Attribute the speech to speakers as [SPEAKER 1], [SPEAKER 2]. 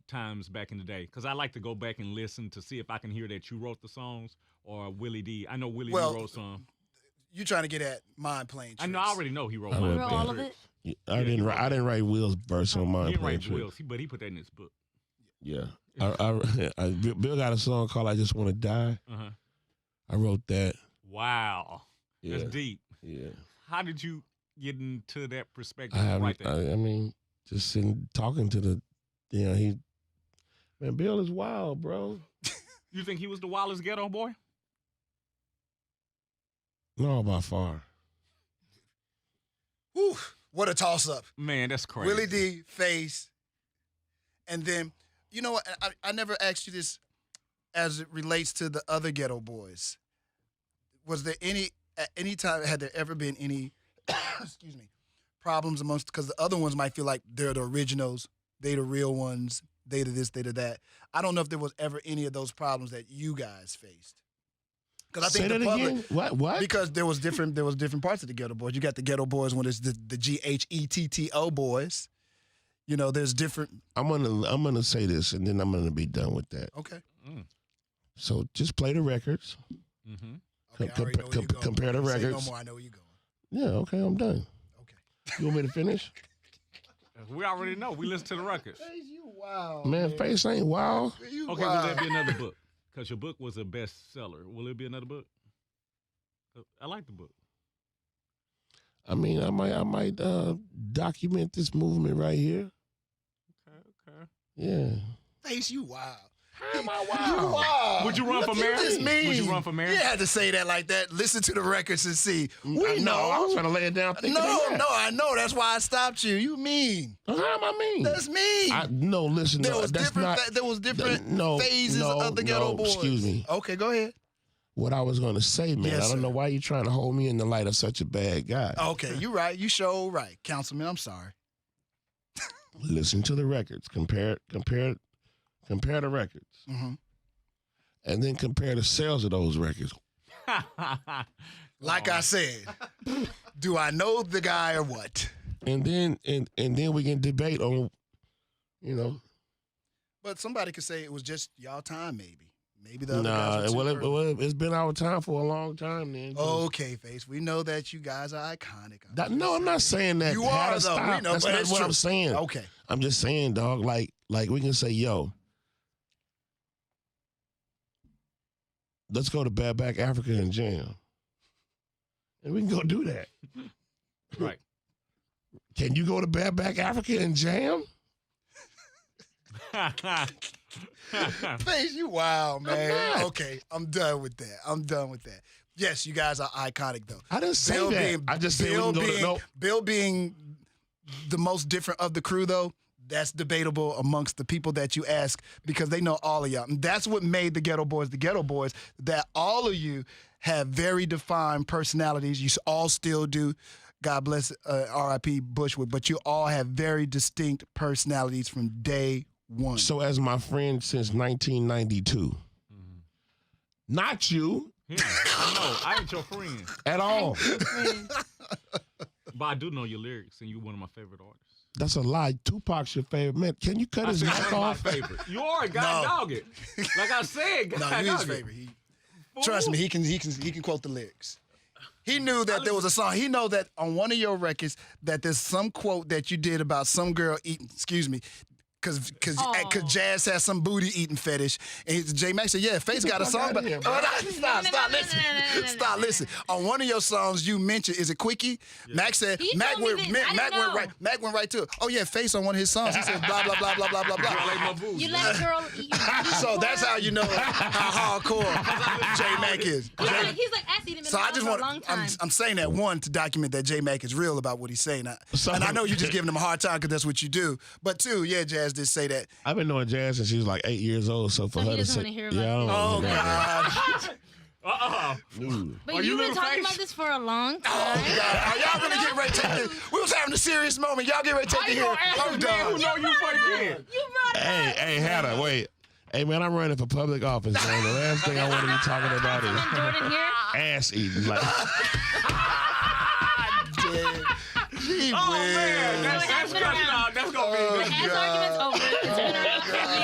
[SPEAKER 1] times back in the day because I like to go back and listen to see if I can hear that you wrote the songs or Willie D. I know Willie
[SPEAKER 2] Well,
[SPEAKER 1] D wrote some.
[SPEAKER 2] You trying to get at mind playing
[SPEAKER 1] I
[SPEAKER 2] tricks?
[SPEAKER 1] know I already know he wrote.
[SPEAKER 3] I
[SPEAKER 1] Mind
[SPEAKER 3] would
[SPEAKER 1] Playing
[SPEAKER 3] be.
[SPEAKER 4] all of
[SPEAKER 1] Tricks.
[SPEAKER 4] it.
[SPEAKER 3] Yeah, I didn't write. I didn't write Will's verse on
[SPEAKER 1] He
[SPEAKER 3] mine.
[SPEAKER 1] didn't
[SPEAKER 3] playing
[SPEAKER 1] write
[SPEAKER 3] tricks.
[SPEAKER 1] Will's, he- but he put that in his book.
[SPEAKER 3] Yeah. I, I, I, Bill Bill got a song called "I Just Want to Die."
[SPEAKER 1] Uh-huh.
[SPEAKER 3] I wrote that.
[SPEAKER 1] Wow,
[SPEAKER 3] Yeah.
[SPEAKER 1] that's deep.
[SPEAKER 3] Yeah.
[SPEAKER 1] How did you get into that perspective?
[SPEAKER 3] I
[SPEAKER 1] and write
[SPEAKER 3] haven't.
[SPEAKER 1] that?
[SPEAKER 3] I, I mean, just sitting talking to the. You know, he. Man, Bill is wild, bro.
[SPEAKER 1] you think he was the wildest ghetto boy?
[SPEAKER 3] No, by far.
[SPEAKER 2] Whew, what a toss up.
[SPEAKER 1] Man, that's crazy.
[SPEAKER 2] Willie D face, and then you know what? I, I I never asked you this as it relates to the other Ghetto Boys. Was there any at any time had there ever been any excuse me problems amongst because the other ones might feel like they're the originals, they the real ones, they the this, they the that. I don't know if there was ever any of those problems that you guys faced. Because I think
[SPEAKER 3] Say
[SPEAKER 2] the
[SPEAKER 3] that
[SPEAKER 2] public,
[SPEAKER 3] again. What? What?
[SPEAKER 2] because there was different there was different parts of the ghetto boys. You got the ghetto boys when it's the the G H E T T O boys. You know, there's different.
[SPEAKER 3] I'm gonna I'm gonna say this, and then I'm gonna be done with that.
[SPEAKER 2] Okay,
[SPEAKER 3] So just play the records.
[SPEAKER 1] Mm-hmm.
[SPEAKER 2] okay, I
[SPEAKER 3] Com-
[SPEAKER 2] already know where
[SPEAKER 3] com-
[SPEAKER 2] you going.
[SPEAKER 3] compare the
[SPEAKER 2] Say no
[SPEAKER 3] records.
[SPEAKER 2] more, I know where you going.
[SPEAKER 3] Yeah. Okay. I'm done.
[SPEAKER 2] Okay.
[SPEAKER 3] You want me to finish?
[SPEAKER 1] We already know. We listen to the records.
[SPEAKER 2] Face you wow,
[SPEAKER 3] man, face ain't wild.
[SPEAKER 2] You
[SPEAKER 1] Okay, will there be another book? Because your book was a bestseller. Will it be another book? Uh, I like the book.
[SPEAKER 3] I mean, I might I might uh, document this movement right here.
[SPEAKER 1] Okay, okay.
[SPEAKER 3] Yeah.
[SPEAKER 2] face you wow.
[SPEAKER 3] How am I
[SPEAKER 2] You wow.
[SPEAKER 1] Would you run
[SPEAKER 2] Look
[SPEAKER 1] for
[SPEAKER 2] at
[SPEAKER 1] mayor?
[SPEAKER 2] This mean.
[SPEAKER 1] Would you run for mayor?
[SPEAKER 2] You had to say that like that. Listen to the records and see. We
[SPEAKER 3] Mm, I
[SPEAKER 2] know.
[SPEAKER 3] I was trying to lay it down. Thinking
[SPEAKER 2] no,
[SPEAKER 3] of that.
[SPEAKER 2] no, I know. That's why I stopped you. You mean?
[SPEAKER 3] How am I mean?
[SPEAKER 2] That's mean.
[SPEAKER 3] Mm. I, no, listen.
[SPEAKER 2] There
[SPEAKER 3] no,
[SPEAKER 2] was
[SPEAKER 3] that's
[SPEAKER 2] different.
[SPEAKER 3] not.
[SPEAKER 2] fa- there was different
[SPEAKER 3] no,
[SPEAKER 2] phases
[SPEAKER 3] no,
[SPEAKER 2] of the ghetto
[SPEAKER 3] no,
[SPEAKER 2] boys.
[SPEAKER 3] excuse me.
[SPEAKER 2] Okay, go ahead.
[SPEAKER 3] what I was gonna say, man.
[SPEAKER 2] Yes,
[SPEAKER 3] I don't
[SPEAKER 2] sir. Oh.
[SPEAKER 3] know why you're trying to hold me in the light of such a bad guy.
[SPEAKER 2] Okay, you right. You show right, Councilman. I'm sorry.
[SPEAKER 3] Listen to the records. Compare, compare, compare the records,
[SPEAKER 2] Mhm.
[SPEAKER 3] and then compare the sales of those records. Oh.
[SPEAKER 2] Like I said, do I know the guy or what?
[SPEAKER 3] and then and and then we can debate on you know
[SPEAKER 2] But somebody could say it was just y'all time, maybe. Maybe the other
[SPEAKER 3] nah
[SPEAKER 2] guys. were
[SPEAKER 3] well,
[SPEAKER 2] too
[SPEAKER 3] it,
[SPEAKER 2] early. Oh,
[SPEAKER 3] well it, has been our time for a long time then
[SPEAKER 2] okay, face. We know that you guys are iconic.
[SPEAKER 3] That- no i'm not saying that
[SPEAKER 2] You
[SPEAKER 3] Had
[SPEAKER 2] are,
[SPEAKER 3] to
[SPEAKER 2] though. We
[SPEAKER 3] stop.
[SPEAKER 2] know,
[SPEAKER 3] that's
[SPEAKER 2] but
[SPEAKER 3] not
[SPEAKER 2] it's
[SPEAKER 3] what
[SPEAKER 2] true. Oh.
[SPEAKER 3] i'm saying
[SPEAKER 2] Okay.
[SPEAKER 3] i'm just saying dog like like we can say yo let's go to bad back africa and jam and we can go do that
[SPEAKER 1] right.
[SPEAKER 3] can you go to bad back africa and jam
[SPEAKER 1] Mm-hmm.
[SPEAKER 2] Face, you wild, man.
[SPEAKER 3] not.
[SPEAKER 2] okay, I'm done with that. I'm done with that. Yes, you guys are iconic, though.
[SPEAKER 3] i didn't say that i just said we
[SPEAKER 2] Bill
[SPEAKER 3] can go
[SPEAKER 2] being,
[SPEAKER 3] to no
[SPEAKER 2] Bill being the most different of the crew, though, that's debatable amongst the people that you ask because they know all of y'all. And that's what made the Ghetto Boys the Ghetto Boys, that all of you have very defined personalities. You s- all still do. God bless uh, R.I.P. Bushwood, but you all have very distinct personalities from day one.
[SPEAKER 3] So as my friend since 1992. Not you
[SPEAKER 1] Yeah, I know. I ain't your friend,
[SPEAKER 3] at all.
[SPEAKER 1] but I do know your lyrics, and you're one of my favorite artists.
[SPEAKER 3] That's a lie. Tupac's your favorite man. Can you cut
[SPEAKER 1] I
[SPEAKER 3] his
[SPEAKER 1] said
[SPEAKER 3] mic
[SPEAKER 1] one
[SPEAKER 3] off?
[SPEAKER 1] of my favorite. You are a god
[SPEAKER 2] No.
[SPEAKER 1] dog it. Like I said, god
[SPEAKER 2] no, you his
[SPEAKER 1] dog it.
[SPEAKER 2] favorite. He, Trust me, he can he can he can quote the lyrics. He knew that there was a song. He know that on one of your records that there's some quote that you did about some girl eating. Excuse me. Cause, cause, eh,
[SPEAKER 4] Aw.
[SPEAKER 2] cause Jazz has some booty eating fetish, and J Max said, "Yeah, Face got a
[SPEAKER 3] fuck
[SPEAKER 2] song."
[SPEAKER 3] outta
[SPEAKER 2] But
[SPEAKER 3] here, bro.
[SPEAKER 2] oh, no, stop,
[SPEAKER 4] no,
[SPEAKER 2] stop,
[SPEAKER 4] no, no,
[SPEAKER 2] listen,
[SPEAKER 4] no, no, no, no,
[SPEAKER 2] stop,
[SPEAKER 4] no, no,
[SPEAKER 2] listen. On one of your songs, you mentioned is it Quickie? Max said,
[SPEAKER 4] He
[SPEAKER 2] Mac
[SPEAKER 4] told me
[SPEAKER 2] went,
[SPEAKER 4] this.
[SPEAKER 2] Mac,
[SPEAKER 4] I didn't
[SPEAKER 2] Mac went
[SPEAKER 4] know.
[SPEAKER 2] right, Mac went right to it. Oh yeah, Face on one of his songs, he said blah blah blah blah blah
[SPEAKER 1] Girl,
[SPEAKER 2] blah blah.
[SPEAKER 1] ain't my boo.
[SPEAKER 4] You let a girl eat your booty
[SPEAKER 2] So
[SPEAKER 4] for
[SPEAKER 2] that's
[SPEAKER 4] her?
[SPEAKER 2] how you know how hardcore J Mac is.
[SPEAKER 4] He's
[SPEAKER 2] J-
[SPEAKER 4] like, he's like, I seen him in
[SPEAKER 2] so
[SPEAKER 4] the
[SPEAKER 2] I
[SPEAKER 4] house
[SPEAKER 2] just
[SPEAKER 4] for a
[SPEAKER 2] want
[SPEAKER 4] long
[SPEAKER 2] I'm,
[SPEAKER 4] time.
[SPEAKER 2] I'm saying that one to document that J Mac is real about what he's saying. I,
[SPEAKER 3] So-
[SPEAKER 2] and I know you're just giving him a hard time because that's what you do. But two, yeah, Jazz did say that.
[SPEAKER 3] I've been knowing Jazz since she was like eight years old. So for
[SPEAKER 4] So he
[SPEAKER 3] her to
[SPEAKER 4] doesn't
[SPEAKER 3] say,
[SPEAKER 4] wanna hear
[SPEAKER 3] yeah,
[SPEAKER 4] about
[SPEAKER 3] I
[SPEAKER 2] Oh
[SPEAKER 3] don't wanna
[SPEAKER 2] God,
[SPEAKER 1] Uh-uh.
[SPEAKER 3] hear about it. Ooh.
[SPEAKER 1] Are
[SPEAKER 4] but
[SPEAKER 1] you
[SPEAKER 4] you've been
[SPEAKER 1] little
[SPEAKER 4] talking
[SPEAKER 1] face?
[SPEAKER 4] about this for a long time.
[SPEAKER 2] oh God, are y'all really getting ready to take this? We was having a serious moment. Y'all get ready to take it here. I'm
[SPEAKER 1] Who
[SPEAKER 2] done.
[SPEAKER 4] Oh,
[SPEAKER 1] know you fucking?
[SPEAKER 4] You brought it
[SPEAKER 3] Hey, hey, Hannah, wait. Hey man, I'm running for public office, man. The last thing I want to be talking about
[SPEAKER 4] up,
[SPEAKER 3] is
[SPEAKER 4] Jordan here.
[SPEAKER 3] ass eating. Like,
[SPEAKER 2] Dead. Gee
[SPEAKER 1] Oh man,
[SPEAKER 2] whiz.
[SPEAKER 1] that's, that's,
[SPEAKER 4] Slow it down,
[SPEAKER 1] that's,
[SPEAKER 4] slow it
[SPEAKER 1] that's,
[SPEAKER 4] down.
[SPEAKER 1] gonna be.
[SPEAKER 2] Uh,
[SPEAKER 4] The ass argument's
[SPEAKER 2] Oh,